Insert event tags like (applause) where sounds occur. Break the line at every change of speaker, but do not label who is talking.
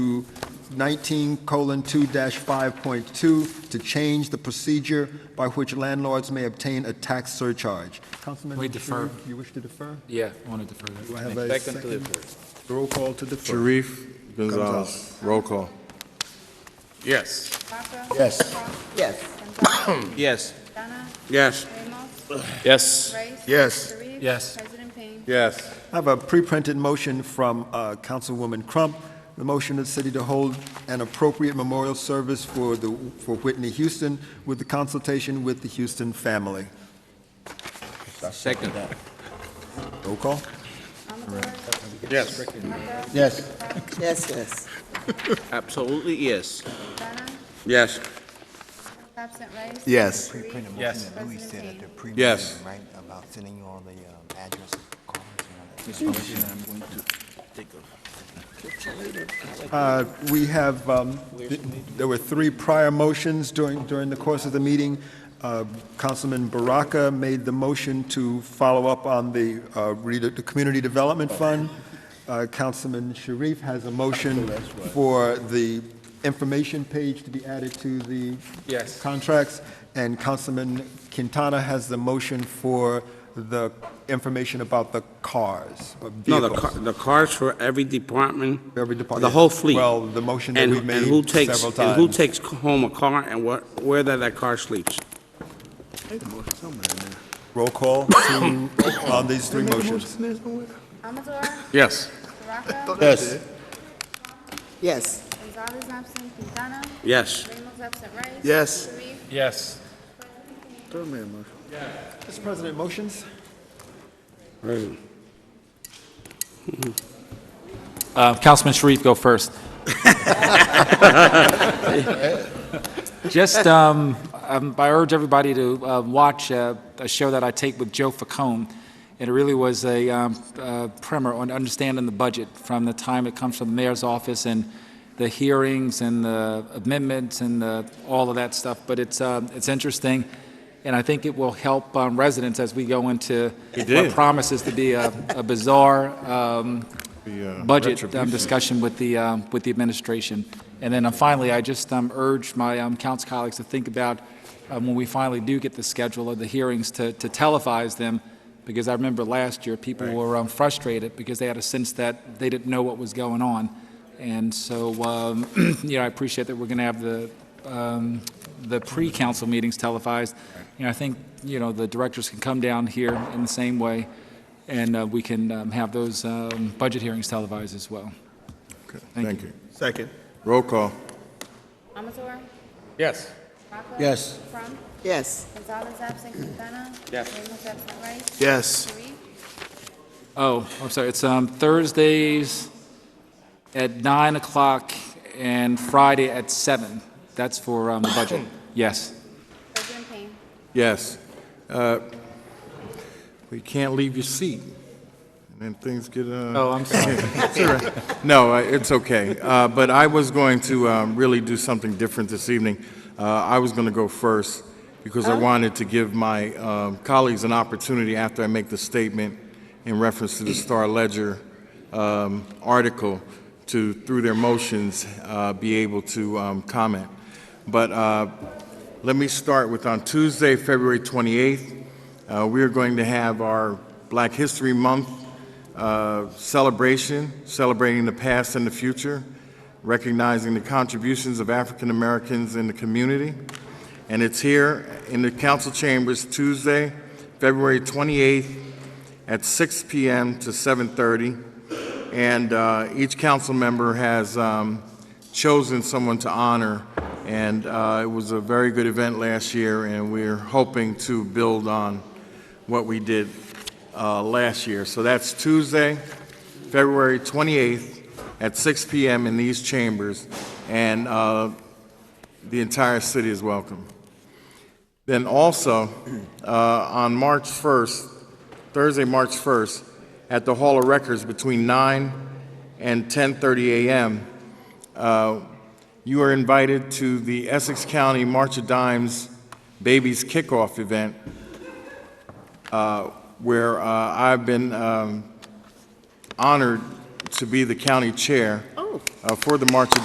19:2-5.2 to change the procedure by which landlords may obtain a tax surcharge. Councilman
We defer.
Sharif, you wish to defer?
Yeah, I want to defer that.
Do I have
Thank
a
Second to
second?
defer.
Roll call to defer.
Sharif, Gonzalez, roll call.
Yes.
Yes.
Yes.
Yes.
Donna,
Yes.
Ramos,
Yes.
Rice. Sharif.
Yes.
President Payne.
Yes.
I have a pre-printed motion from uh, Councilwoman Crump. The motion of the city to hold an appropriate memorial service for the, for Whitney Houston with the consultation with the Houston family.
Second.
Roll call.
Amador,
Yes.
Yes.
(laughs)
Yes, yes.
Absolutely yes.
Donna,
Yes.
absent Rice.
Yes.
Sharif.
Yes.
Louis said at the
President
pre
Yes.
right, about sending you all the um, address cards and all that.
Uh, We have, um, th- there were three prior motions during, during the course of the meeting. Uh, Councilman Baraka made the motion to follow up on the, uh, rede- the Community Development Fund. Uh, Councilman Sharif has a motion for the information page to be added to the
Yes.
contracts, and Councilman Quintana has the motion for the information about the cars, or
No, the
vehicles.
ca- the cars for every department.
Every department.
The whole fleet.
Well, the motion that
And-
we've made
and who takes-
several
And who
times.
takes home a car and where, where that that car sleeps.
Roll
(coughs)
call to, on these three motions.
Amador,
Yes.
Baraka.
Yes. Yes.
Gonzalez absent, Quintana.
Yes.
Ramos absent Rice.
Yes.
Sharif.
Yes.
Mr. President, motions?
Uh, Councilman Sharif, go first. Just, um, um, I urge everybody to uh, watch uh, a show that I take with Joe Facone. It really was a um, uh, primer on understanding the budget from the time it comes from the mayor's office and the hearings and the amendments and the, all of that stuff. But it's, um, it's interesting, and I think it will help um, residents as we go into what promises to be a a bizarre um, budget um, discussion with the, um, with the administration. And then uh, finally, I just um, urge my um, council colleagues to think about, um, when we finally do get the schedule of the hearings, to to televise them, because I remember last year, people were um, frustrated because they had a sense that they didn't know what was going on. And so, um, (clears throat) you know, I appreciate that we're going to have the, um, the pre-council meetings televised. You know, I think, you know, the directors can come down here in the same way, and uh, we can um, have those um, budget hearings televised as well.
Thank you.
Second.
Roll call.
Amador,
Yes.
Baraka.
Yes.
Crum,
Yes.
Gonzalez absent, Quintana.
Yes.
Ramos absent Rice.
Yes.
Sharif.
Oh, I'm sorry, it's um, Thursdays at 9 o'clock and Friday at 7. That's for um, the budget. Yes.
President Payne.
Yes. Uh, We can't leave your seat. And then things get, uh...
Oh, I'm sorry.
No, uh, it's okay. Uh, But I was going to um, really do something different this evening. Uh, I was going to go first because I wanted to give my um, colleagues an opportunity after I make the statement in reference to the Star Ledger um, article to, through their motions, uh, be able to um, comment. But uh, let me start with on Tuesday, February 28th, uh, we are going to have our Black History Month uh, celebration, celebrating the past and the future, recognizing the contributions of African Americans in the community. And it's here in the council chambers Tuesday, February 28th at 6 p.m. to 7:30. And uh, each council member has um, chosen someone to honor. And uh, it was a very good event last year, and we're hoping to build on what we did uh, last year. So that's Tuesday, February 28th at 6 p.m. in these chambers, and uh, the entire city is welcome. Then also, uh, on March 1st, Thursday, March 1st, at the Hall of Records between 9 and 10:30 a.m., uh, you are invited to the Essex County March of Dimes Babies Kickoff Event where uh, I've been um, honored to be the county chair. Oh. uh, for the March